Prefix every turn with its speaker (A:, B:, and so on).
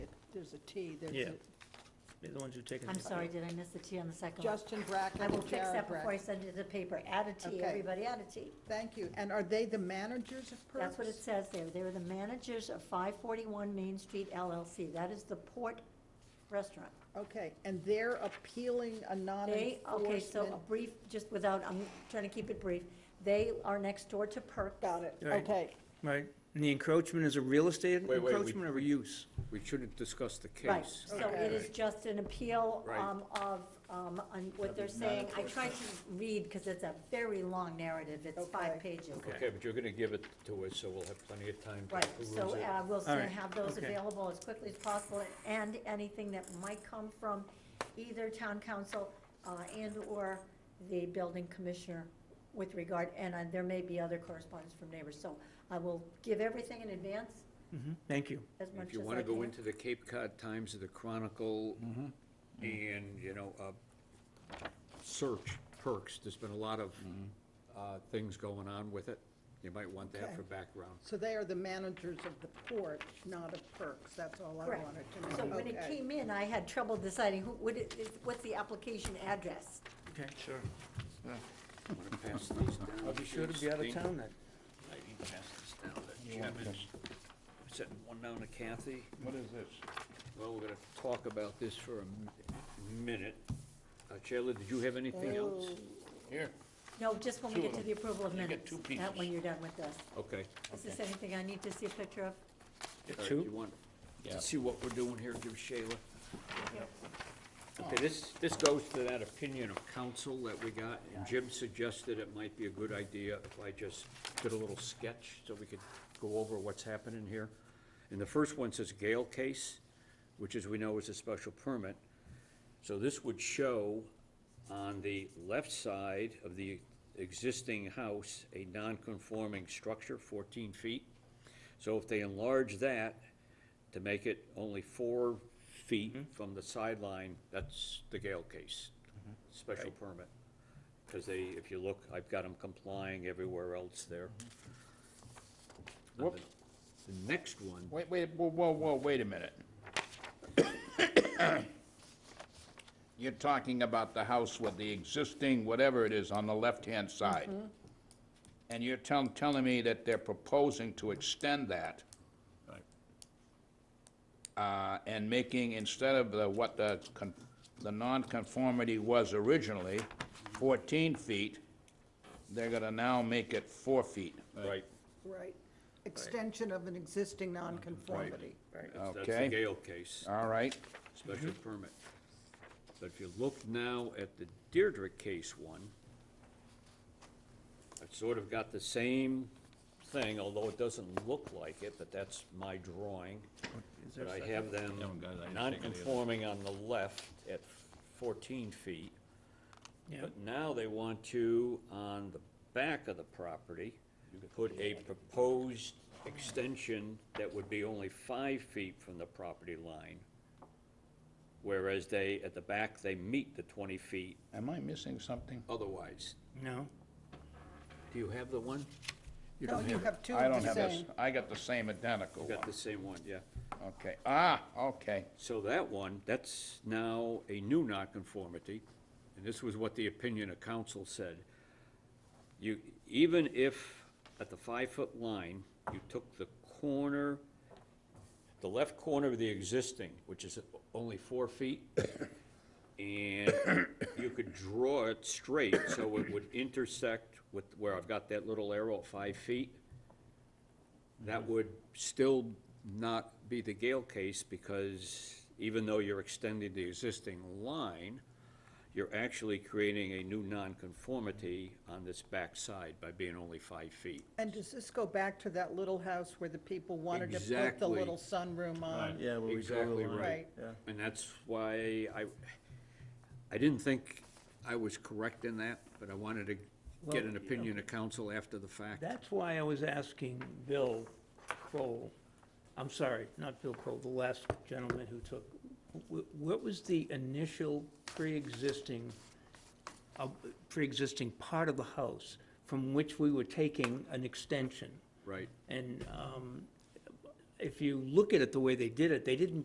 A: there's a T, there's
B: Yeah.
A: a-
B: They're the ones who take it.
C: I'm sorry, did I miss the T on the second one?
A: Justin Brackett
C: I will
A: and
C: fix
A: Jared
C: that before I
A: Brackett.
C: send it to the paper. Add a T,
A: Okay.
C: everybody add a T.
A: Thank you. And are they the managers of Perks?
C: That's what it says there. They were the managers of 541 Main Street LLC. That is the Port Restaurant.
A: Okay, and they're appealing a
C: They, okay, so a
A: non-enforcement.
C: brief, just without, I'm trying to keep it brief. They are next door to Perk.
A: Got it,
B: Right.
A: okay.
B: Right, and the encroachment is a real estate
D: Wait, wait, we-
B: encroachment or a use?
C: Mm-hmm.
D: We shouldn't discuss the case.
C: Right, so it is just an appeal
D: Right.
C: um, of, um, on what they're saying. I tried to read, because it's a very long narrative. It's
A: Okay.
C: five pages.
D: Okay, but you're gonna give it to us, so we'll have plenty of time to
C: Right,
D: peruse
C: so
D: it.
C: uh, we'll
B: All
C: soon
B: right,
C: have those
B: okay.
C: available as quickly as possible, and anything that might come from either town council uh, and/or the building commissioner with regard, and uh, there may be other correspondence from neighbors. So I will give everything in advance
B: Mhm, Thank you.
C: as much as I can.
D: If you wanna go into the Cape Cod Times or the Chronicle, and, you know, uh, search perks, there's been a lot of, uh, things going on with it. You might want that
A: Okay.
D: for background.
A: So they are the managers of the port, not of Perks, that's all I
C: Correct.
A: wanted to know.
C: So when it
A: Okay.
C: came in, I had trouble deciding who, what it- it- what's the application address?
B: Okay, sure.
D: I'm gonna pass these down.
B: I'll be sure to be out of town then.
D: I need to pass this down to Chapman. Setting one down to Kathy.
E: What is this?
D: Well, we're gonna talk about this for a m- minute. Uh, Sheila, did you have anything else?
E: Here.
C: No, just when we
E: Two
C: get
E: of
C: to
E: them.
C: the approval of
E: You get
C: minutes.
E: two
C: Not when
E: pieces.
C: you're done with this.
D: Okay.
C: Is this anything I need to see a picture of?
D: All right,
B: Two?
D: You want
E: Yeah.
D: to see what we're doing here, give Shayla. Okay, this, this goes to that opinion of council that we got, and Jim suggested it might be a good idea if I just did a little sketch so we could go over what's happening here. And the first one says Gale case, which as we know is a special permit. So this would show on the left side of the existing house, a non-conforming structure, fourteen feet. So if they enlarge that to make it only four feet from the sideline, that's the Gale case, special permit. Because they, if you look, I've got them complying everywhere else there.
E: Whoop.
D: The next one,
E: Wait, wait, whoa, whoa, whoa, wait a minute. You're talking about the house with the existing, whatever it is, on the left-hand side. And you're telling, telling me that they're proposing to extend that.
D: Right.
E: Uh, and making, instead of the, what the, con- the nonconformity was originally, fourteen feet, they're gonna now make it four feet.
D: right,
A: Right, extension of an existing nonconformity.
D: that's that's the
E: Okay.
D: Gale case.
E: All right,
D: special permit. But if you look now at the Deirdre case one, I've sort of got the same thing, although it doesn't look like it, but that's my drawing. But I have them non-conforming on the left at fourteen feet.
B: Yeah.
D: But now they want to, on the back of the property, put a proposed extension that would be only five feet from the property line. Whereas they, at the back, they meet the twenty feet
E: am I missing something?
D: otherwise.
B: No?
D: Do you have the one?
A: No, you have two
E: I
A: of
E: don't
A: the
E: have this,
A: same.
E: I got the same identical
D: You
E: one.
D: got the same one, yeah.
E: Okay, ah, okay,
D: So that one, that's now a new nonconformity, and this was what the opinion of council said. You, even if at the five-foot line, you took the corner, the left corner of the existing, which is only four feet, and you could draw it straight, so it would intersect with where I've got that little arrow at five feet, that would still not be the Gale case, because even though you're extending the existing line, you're actually creating a new nonconformity on this back side by being only five feet.
A: And does this go back to that little house where the people wanted to put the
D: Exactly.
A: little sunroom on?
B: Yeah, where we draw the
D: Exactly
B: line.
A: Right.
B: Yeah.
D: And that's why I, I didn't think I was correct in that, but I wanted to get an opinion of council after the fact.
B: That's why I was asking Bill Kroll, I'm sorry, not Bill Kroll, the last gentleman who took, wh- what was the initial pre-existing, uh, pre-existing part of the house from which we were taking an extension?
D: Right.
B: And um, if you look at it the way they did it, they didn't